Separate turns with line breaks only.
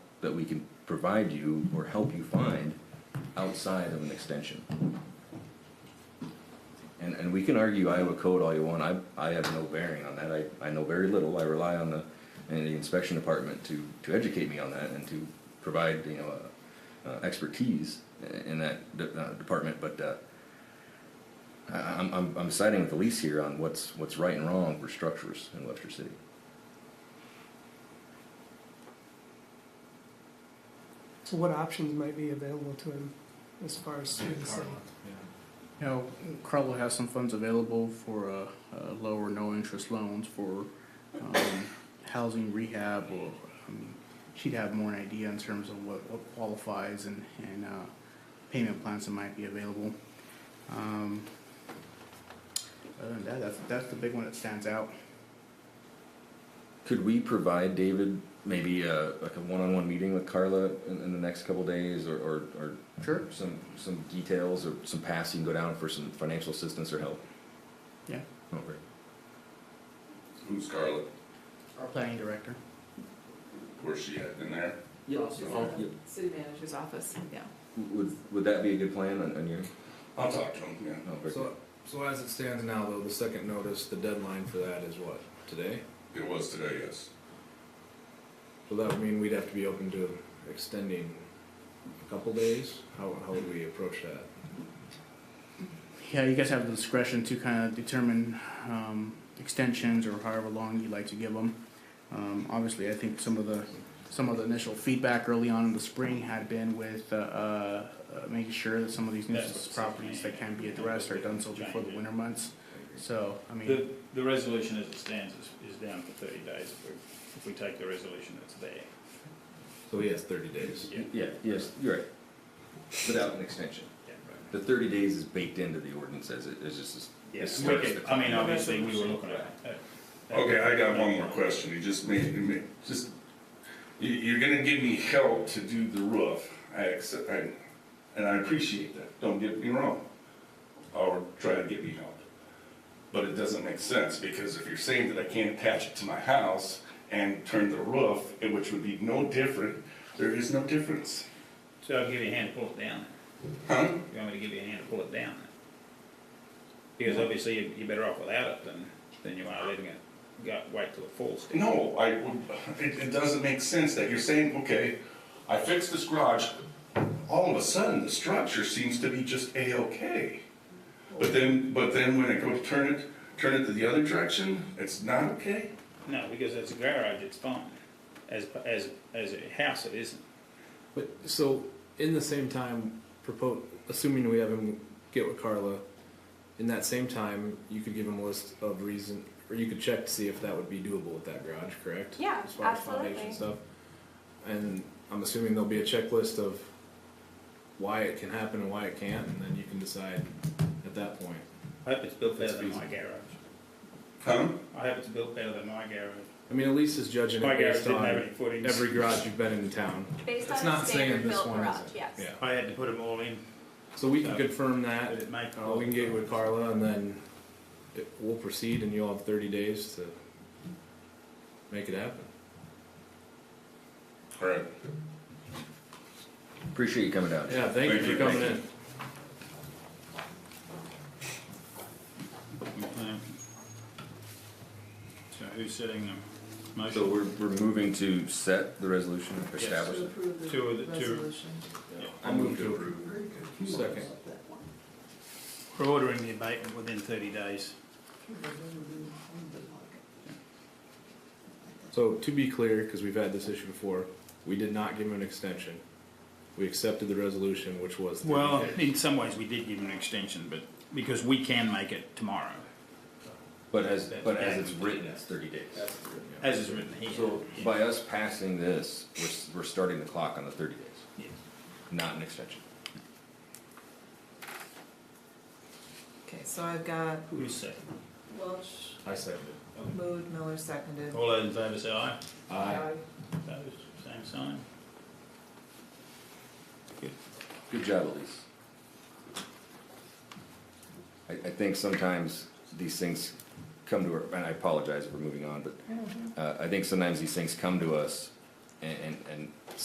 that we can provide you or help you find outside of an extension. And, and we can argue Iowa code all you want, I, I have no bearing on that, I, I know very little, I rely on the, and the inspection department to, to educate me on that and to provide, you know, uh, uh, expertise in that de- uh, department, but, uh, I, I'm, I'm, I'm siding with Elise here on what's, what's right and wrong for structures in Webster City.
So what options might be available to him as far as through the city?
You know, Crowell has some funds available for uh, uh, low or no interest loans for um, housing rehab. Or I mean, she'd have more an idea in terms of what, what qualifies and and uh, payment plans that might be available. Um, other than that, that's that's the big one that stands out.
Could we provide David maybe a, like a one-on-one meeting with Carla in, in the next couple days or, or, or
Sure.
some, some details or some paths you can go down for some financial assistance or help? Oh,
Yeah.
Okay.
Who's Scarlett?
Our planning director.
Where's she at in there?
City manager's office, yeah.
Would, would that be a good plan on, on your,
I'll talk to him, yeah.
oh, very
So, so as it stands now, though, the second notice, the deadline for that is what, today?
It was today, yes.
So that would mean we'd have to be open to extending a couple days? How, how would we approach that?
Yeah, you guys have the discretion to kind of determine um, extensions or however long you'd like to give them. Um, obviously, I think some of the some of the initial feedback early on in the spring had been with uh, uh, uh, making sure that some of these nuisance properties that can be addressed are done so before the winter months. So, I mean,
The, the resolution as it stands is, is down for thirty days if we, if we take the resolution that's there.
So he has thirty days.
Yeah, yes, you're right. Without an extension.
Yeah, right.
The thirty days is baked into the ordinance as it, it's just.
Yes,
it
we
starts
could,
the
I mean,
clock.
obviously, we were looking at. at- at-
Okay, I got one more question. You just made, you made, just, you, you're gonna give me help to do the roof. I accept, I, and I appreciate that. Don't get me wrong. Or try to get me help. But it doesn't make sense because if you're saying that I can't attach it to my house and turn the roof, eh, which would be no different, there is no difference.
So I'll give you a hand to pull it down.
Huh?
You want me to give you a hand to pull it down? Because obviously, you- you're better off without it than, than you are letting it, go wait till it falls down.
No, I, it, it doesn't make sense that you're saying, okay, I fixed this garage, all of a sudden, the structure seems to be just A-OK. But then, but then when I go to turn it, turn it to the other direction, it's not okay?
No, because it's a garage, it's fine. As, as, as a house, it isn't.
But, so, in the same time, propose, assuming we have him get with Carla, in that same time, you could give him a list of reason, or you could check to see if that would be doable with that garage, correct?
Yeah,
as far as foundation
absolutely.
stuff. And I'm assuming there'll be a checklist of why it can happen and why it can't, and then you can decide at that point.
I hope it's built better
That's
than my
feasible.
garage.
Huh?
I hope it's built better than my garage.
I mean, Elise is judging
My
it
garage
based
didn't have
on
any footings.
every garage you've been in town.
Based
It's
on a
not saying
standard
this
built
one
garage,
is it.
yes.
Yeah.
I had to put them all in,
So we can
Yeah.
confirm
but
that.
it may
Uh, we can get with Carla, and then it, we'll proceed, and you'll have 30 days to make it happen.
All right.
Appreciate you coming down.
Yeah, thank,
Thank
you
you.
for coming
Thank
in.
Um, So who's setting the
So
motion?
we're, we're moving to set the resolution, establish
To
it.
approve
Two
the
of the- two-
resolution.
I move to approve. Second.
We're ordering the abatement within thirty days.
So to be clear, because we've had this issue before, we did not give him an extension. We accepted the resolution, which was 30
Well,
days.
in some ways, we did give an extension, but, because we can make it tomorrow,
But as, but as it's written, it's thirty days.
as is written here.
So by us passing this, we're, s- we're starting the clock on the thirty days,
Yes.
not an extension.
Okay, so I've got
Who's second?
Welch,
I seconded.
moved, Miller seconded.
All those in favour say aye.
Aye.
Opposed, same sign.
Good job, Elise. I, I think sometimes these things come to, our- and I apologize if we're moving on, but, uh, I think sometimes these things come to us and, and, and